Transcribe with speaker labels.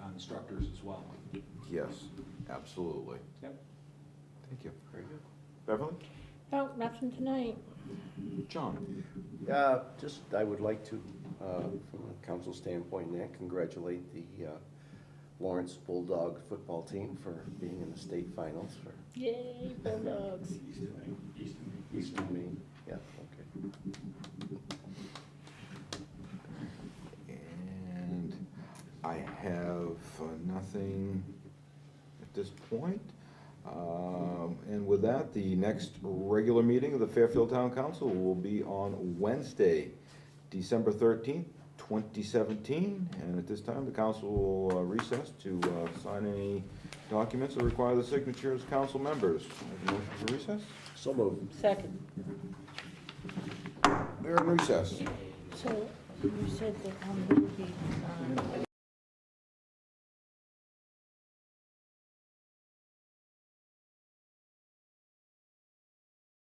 Speaker 1: uh, instructors as well.
Speaker 2: Yes, absolutely.
Speaker 1: Yep.
Speaker 2: Thank you.
Speaker 3: Very good.
Speaker 2: Beverly?
Speaker 4: No, nothing tonight.
Speaker 2: John?
Speaker 3: Uh, Just, I would like to, uh, from a council standpoint, Nick, congratulate the uh, Lawrence Bulldog football team for being in the state finals for
Speaker 4: Yay, Bulldogs.
Speaker 3: Eastern Maine. Yeah, okay.
Speaker 2: And I have uh, nothing at this point. Um, And with that, the next regular meeting of the Fairfield Town Council will be on Wednesday, December thirteenth, twenty seventeen. And at this time, the council will uh, recess to uh, sign any documents that require the signatures of council members. Have a Motion to recess?
Speaker 3: So moved.
Speaker 4: Second.
Speaker 2: We're in recess.
Speaker 4: So you said that I'm gonna be, uh,